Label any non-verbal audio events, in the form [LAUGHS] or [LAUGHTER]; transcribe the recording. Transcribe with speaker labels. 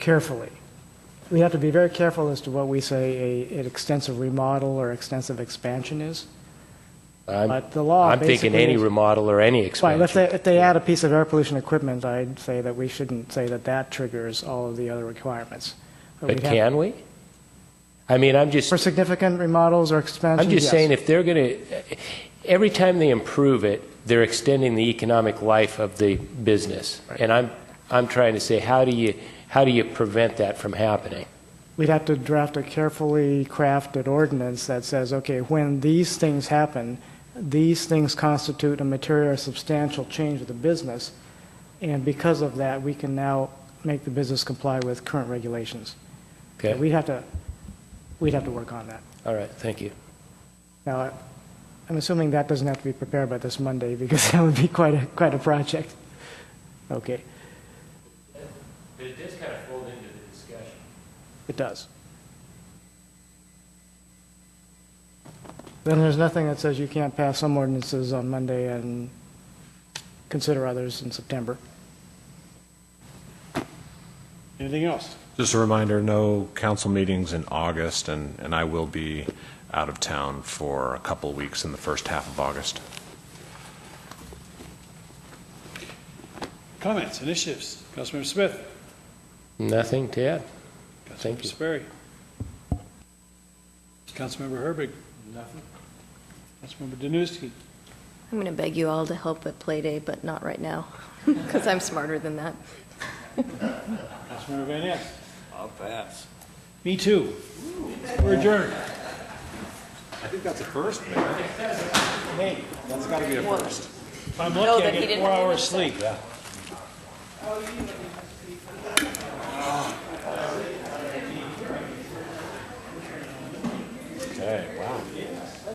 Speaker 1: carefully. We have to be very careful as to what we say a, an extensive remodel or extensive expansion is.
Speaker 2: I'm-
Speaker 1: But the law
Speaker 2: I'm thinking
Speaker 1: Oh, basically
Speaker 2: any
Speaker 1: is-
Speaker 2: remodel or any
Speaker 1: Fine, if they,
Speaker 2: expansion.
Speaker 1: if they add a piece of air pollution equipment, I'd say that we shouldn't say that that triggers all of the other requirements.
Speaker 2: But
Speaker 1: we'd have-
Speaker 2: can we? I mean, I'm just,
Speaker 1: For significant remodels or expansions,
Speaker 2: I'm just
Speaker 1: yes.
Speaker 2: saying if they're going to, every time they improve it, they're extending the economic life of the business. And I'm, I'm trying to say, how do you, how do you prevent that from happening?
Speaker 1: We'd have to draft a carefully crafted ordinance that says, okay, when these things happen, these things constitute a material or substantial change of the business, and because of that, we can now make the business comply with current regulations.
Speaker 2: Okay,
Speaker 1: We'd have to, we'd have to work on that.
Speaker 2: all right, thank you.
Speaker 1: Now, I- I'm assuming that doesn't have to be prepared by this Monday, because [LAUGHS] that would be quite a, quite a project. Okay,
Speaker 2: But it does kind of fold into the discussion.
Speaker 1: it does. Then there's nothing that says you can't pass some ordinances on Monday and consider others in September.
Speaker 3: Anything else?
Speaker 4: Just a reminder, no council meetings in August, and, and I will be out of town for a couple of weeks in the first half of August.
Speaker 3: Comments, initiatives? Councilmember Smith?
Speaker 2: Nothing to add. Thank
Speaker 3: Councilmember
Speaker 2: you.
Speaker 3: Sperry? Councilmember Herbig? Nothing. Councilmember Danuski?
Speaker 5: I'm going to beg you all to help at Play Day, but not right now, [LAUGHS] because I'm smarter than that.
Speaker 3: Councilmember Van Ness? I'll pass. Me too. We're adjourned.
Speaker 4: I think that's a first, Mayor. Hey, that's got to be a first.
Speaker 3: If I'm lucky, I
Speaker 5: that he
Speaker 3: get
Speaker 5: didn't
Speaker 3: four
Speaker 5: have
Speaker 3: hours sleep.
Speaker 4: Okay, wow.